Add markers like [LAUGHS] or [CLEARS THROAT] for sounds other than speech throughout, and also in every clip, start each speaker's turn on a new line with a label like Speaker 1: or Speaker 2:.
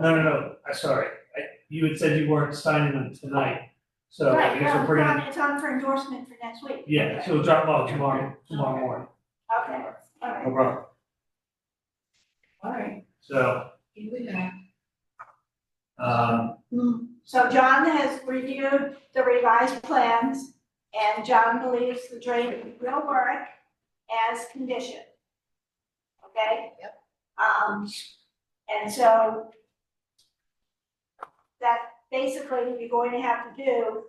Speaker 1: No, no, no, I'm sorry, I, you had said you weren't signing them tonight, so I
Speaker 2: Right, no,
Speaker 1: guess we're
Speaker 2: it's
Speaker 1: bringing,
Speaker 2: on, it's on for endorsement for next week.
Speaker 1: yeah, so we'll drop off tomorrow, tomorrow
Speaker 2: Okay.
Speaker 1: morning,
Speaker 2: Okay, all right.
Speaker 1: no problem,
Speaker 2: Alright.
Speaker 1: so, um,
Speaker 2: So John has reviewed the revised plans and John believes the drain will work as conditioned. Okay? Yep. Um, and so that basically you're going to have to do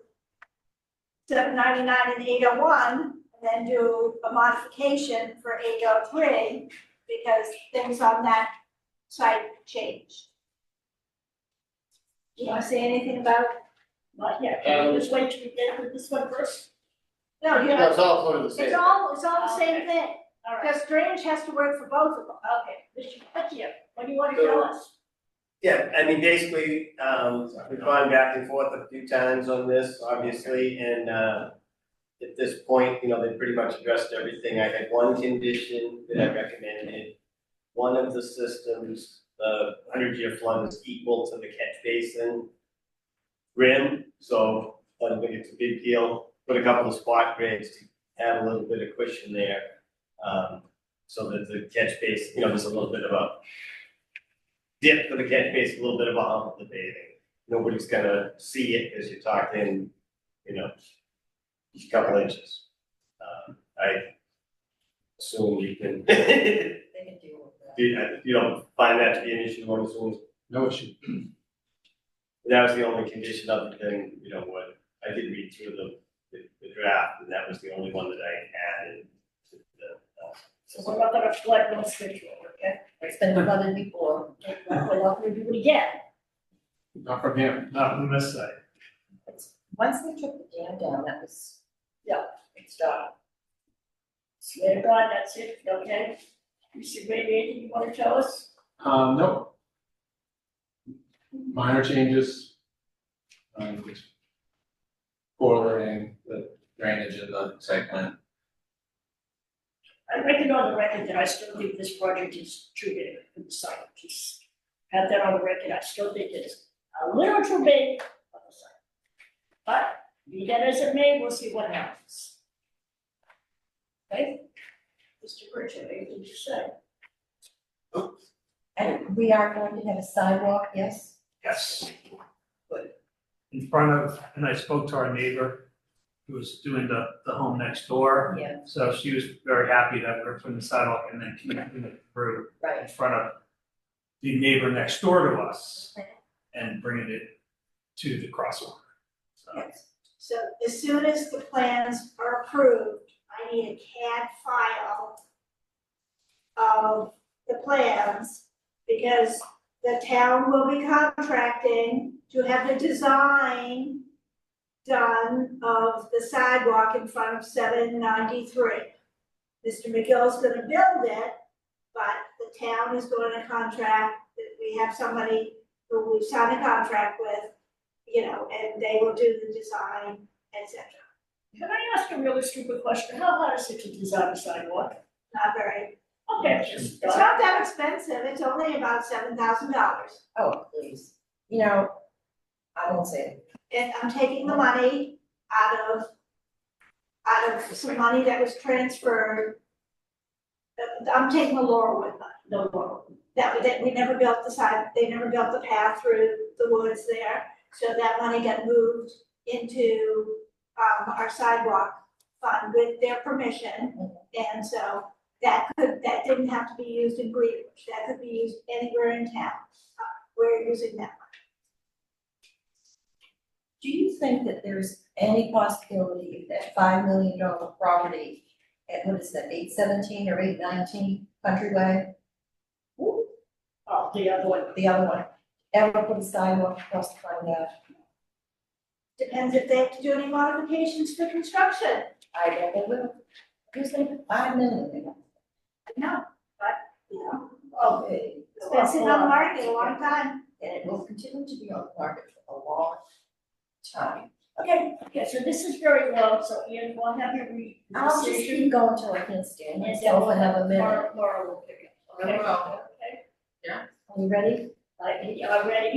Speaker 2: seven ninety-nine and eight oh one, and then do a modification for eight oh three because things on that site changed. You wanna say anything about?
Speaker 3: Not yet, can we just wait till we get with this one first?
Speaker 2: No, you
Speaker 4: No,
Speaker 2: know,
Speaker 4: it's all sort of the
Speaker 2: it's
Speaker 4: same.
Speaker 2: all, it's all the same thing,
Speaker 3: All right,
Speaker 2: because drainage has to work for both of them.
Speaker 3: okay, Mr. Pecchio, what do you wanna tell us?
Speaker 5: Yeah, I mean, basically, um, we've gone back and forth a few times on this, obviously, and, uh, at this point, you know, they pretty much addressed everything. I had one condition that I recommended. One of the systems, the hundred year flood was equal to the catch basin rim, so I don't think it's a big deal. Put a couple of spot grades to add a little bit of cushion there, um, so that the catch basin, you know, there's a little bit of a dip for the catch basin, a little bit of a hump of the bathing. Nobody's gonna see it as you're talking, you know, a couple inches. Um, I assume you can, [LAUGHS] you,
Speaker 3: They can deal with that.
Speaker 5: you don't find that to be an issue, one assumes.
Speaker 4: No issue.
Speaker 5: [CLEARS THROAT] That was the only condition other than, you know, what, I did read through the, the the draft, and that was the only one that I added to the, uh,
Speaker 3: So we're not gonna flood one schedule, okay? It's been flooded before, we're not gonna do it again.
Speaker 4: Not from here.
Speaker 1: not from this side.
Speaker 6: Once they took the dam down, that was,
Speaker 3: Yeah, it's done. Swear to God, that's it, okay? Mr. Grady, anything you wanna tell us?
Speaker 4: Um, no. Minor changes. Um, Forwarding the drainage in the site plan.
Speaker 3: I reckon on the record that I still think this project is too big for the site, just have that on the record, I still think it's a little too big for the site. But be that as it may, we'll see what happens. Okay? Mr. Burchett, anything to say?
Speaker 6: and we are going to have a sidewalk, yes?
Speaker 1: Yes. In front of, and I spoke to our neighbor, who was doing the, the home next door,
Speaker 6: Yeah,
Speaker 1: so she was very happy that we're putting the sidewalk and then connecting it through in
Speaker 6: right.
Speaker 1: front of the neighbor next door to us and bringing it to the crosswalk. So,
Speaker 2: So as soon as the plans are approved, I need a CAD file of the plans, because the town will be contracting to have the design done of the sidewalk in front of seven ninety-three. Mr. McGill's gonna build it, but the town is going to contract, that we have somebody who we signed a contract with you know, and they will do the design, et cetera.
Speaker 3: Can I ask a really stupid question, how hard is it to design a sidewalk?
Speaker 2: Not very,
Speaker 3: Okay, just,
Speaker 2: it's not that expensive, it's only about seven thousand dollars.
Speaker 6: Oh, please. You know, I won't say it.
Speaker 2: And I'm taking the money out of, out of some money that was transferred. Uh, I'm taking the Laurelwood money,
Speaker 3: no, no,
Speaker 2: that, that we never built the side, they never built the path through the woods there. So that money got moved into, um, our sidewalk fund with their permission. And so that could, that didn't have to be used in Greenwich, that could be used anywhere in town. Uh, We're using that.
Speaker 6: Do you think that there's any possibility that five million dollar property at, what is that, eight seventeen or eight nineteen Countryway?
Speaker 3: oh, the other one,
Speaker 6: The other one, ever put a sidewalk across the front of that?
Speaker 2: Depends if they have to do any modifications for construction.
Speaker 6: I don't know, Well, who's gonna put five million?
Speaker 2: No, but, you know,
Speaker 6: Okay.
Speaker 2: it's been sitting on the market a long time.
Speaker 6: eh, And it will continue to be on the market for a long time.
Speaker 3: okay, okay, so this is very low, so Ian, we'll have you read the
Speaker 6: I'll just
Speaker 3: decision.
Speaker 6: keep going till I can stand
Speaker 3: And
Speaker 6: myself another minute.
Speaker 3: Laura, Laura will pick it up, okay?
Speaker 7: Very well.
Speaker 3: Okay.
Speaker 6: Are you ready?
Speaker 3: I, I read